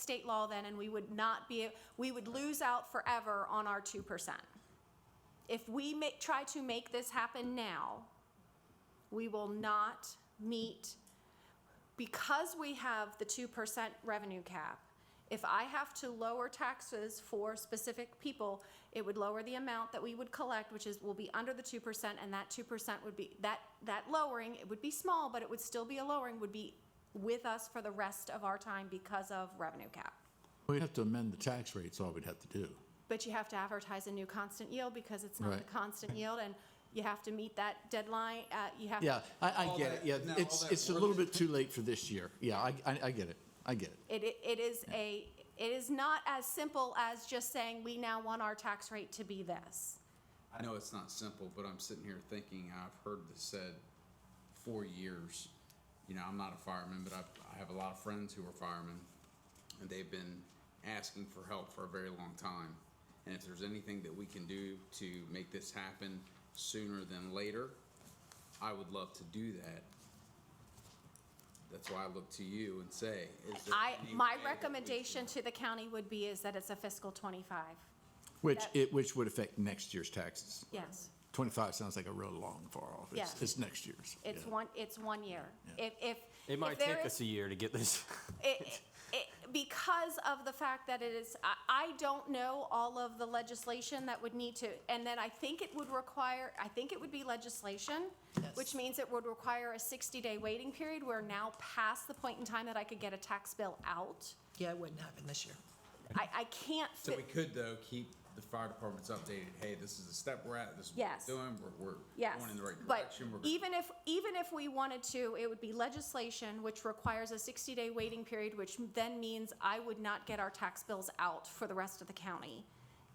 state law then, and we would not be, we would lose out forever on our 2%. If we ma- try to make this happen now, we will not meet, because we have the 2% revenue cap, if I have to lower taxes for specific people, it would lower the amount that we would collect, which is, will be under the 2%, and that 2% would be, that, that lowering, it would be small, but it would still be a lowering, would be with us for the rest of our time because of revenue cap. We'd have to amend the tax rates, all we'd have to do. But you have to advertise a new constant yield because it's not the Right. constant yield, and you have to meet that deadline, uh, you have. Yeah, I, I All get that- it, yeah, now, all it's, that it's a work little is- bit too late for this year, yeah, I, I, I get it, I get it. It, i- it is a, it is not as simple as just saying, we now want our tax rate to be this. I know it's not simple, but I'm sitting here thinking, I've heard this said for years. You know, I'm not a fireman, but I, I have a lot of friends who are firemen, and they've been asking for help for a very long time. And if there's anything that we can do to make this happen sooner than later, I would love to do that. That's why I look to you and say, is there I, any way my that we can- recommendation to the county would be is that it's a fiscal 25, Which, That- it, which would affect next year's taxes. yes. Twenty-five sounds like a real long far off, it's, Yeah. it's next year's. It's yeah. one, it's one year. Yeah. If, if. It might if there take is- us a year to get this. it, it, because of the fact that it is, I, I don't know all of the legislation that would need to, and then I think it would require, I think it would be legislation, which means it would require a 60-day waiting period. We're now past the point in time that I could get a tax bill out. Yeah, it wouldn't happen this year. I, I can't So we fit, could though keep the fire departments updated. Hey, this is the step we're at. This is what Yes. we're doing. We're, we're yes. going in the right But direction. We're- even if, even if we wanted to, it would be legislation, which requires a 60-day waiting period, which then means I would not get our tax bills out for the rest of the county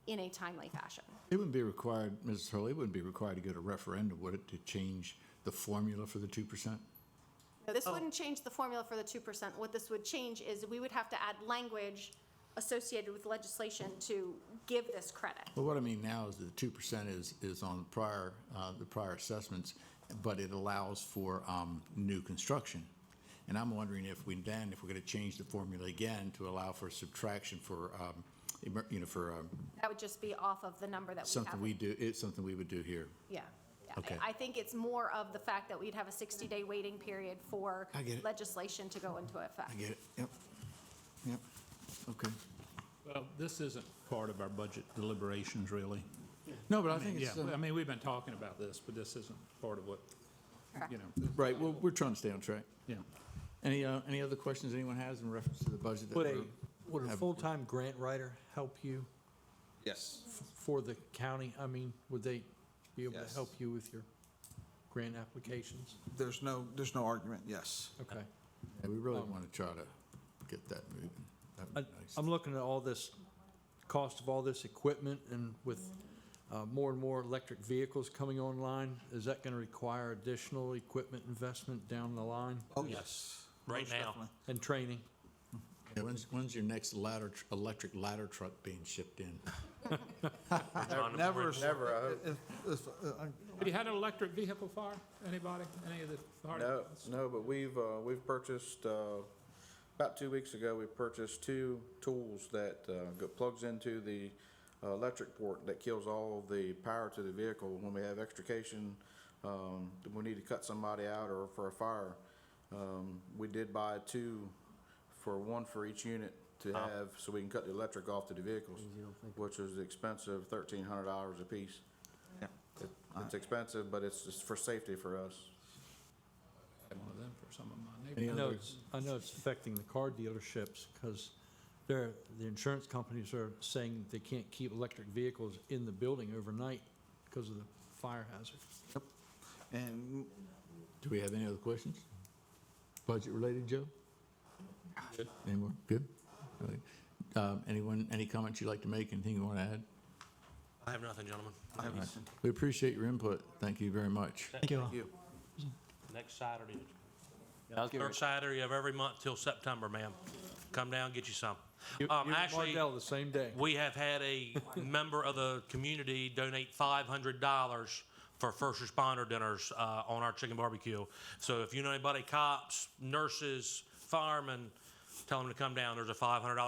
in a timely fashion. It wouldn't be required, Mrs. Hurley, it wouldn't be required to go to referendum, would it, to change the formula for the two percent? No, Oh. This wouldn't change the formula for the two percent. What this would change is we would have to add language associated with legislation to give this credit. Well, what I mean now is that the two percent is, is on the prior, uh, the prior assessments, but it allows for, um, new construction. And I'm wondering if we then, if we're gonna change the formula again to allow for subtraction for, um, emer- you know, for, um, That would just be off of the number that we have. something we do, it's something we would do here. Yeah. Yeah. I- Okay. I think it's more of the fact that we'd have a sixty-day waiting period for I get it. legislation to go into effect. I get it, yep, yep, okay. Well, this isn't part of our budget deliberations, really. No, but I I mean, think yeah, it's, I uh, mean, we've been talking about this, but this isn't part of what, you know, right, well, we're trying to stay on track. yeah. Any, uh, any other questions anyone has in reference to the budget? that Would a, we're- would a have- full-time grant writer help you yes. for the county? I mean, would they be able to Yes. help you with your grant applications? There's no, there's no argument, yes. Okay. Yeah, We really want to try to get that moving. That I- would be nice. I'm looking at all this, cost of all this equipment and with uh, more and more electric vehicles coming online, is that going to require additional equipment investment down the line Oh, yes. Right Most now. definitely. and training? Yeah, When's, when's your next ladder, tr- electric ladder truck being shipped in? Never, never. If, if, uh, Have you had an electric vehicle fire? Anybody? Any of the fire? No, no, but we've, uh, we've purchased, uh, about two weeks ago, we purchased two tools that, uh, go- plugs into the uh, electric port that kills all the power to the vehicle when we have extrication, um, if we need to cut somebody out or for a fire. Um, we did buy two for one for each unit to have, so we can cut the electric off to the vehicles, which was expensive, thirteen hundred dollars apiece. Yeah. It- It's expensive, but it's, it's for safety for us. I had one of them for some of my Any neighbors. I know other, it's, I know it's affecting the car dealerships because they're, the insurance companies are saying they can't keep electric vehicles in the building overnight because of the fire hazard. And do we have any other questions? Budget related, Joe? Any more? Good? All right. Um, anyone, any comments you'd like to make, anything you want to add? I have nothing, gentlemen. I have nothing. We appreciate your input. Thank you very much. Thank you. you. Next Saturday, I'll give her- third Saturday of every month till September, ma'am. Come down, get you some. You Um, you and actually, Mardell the same day. we have had a member of the community donate five hundred dollars for first responder dinners, uh, on our chicken barbecue. So if you know anybody, cops, nurses, firemen, tell them to come down. There's a five hundred dollar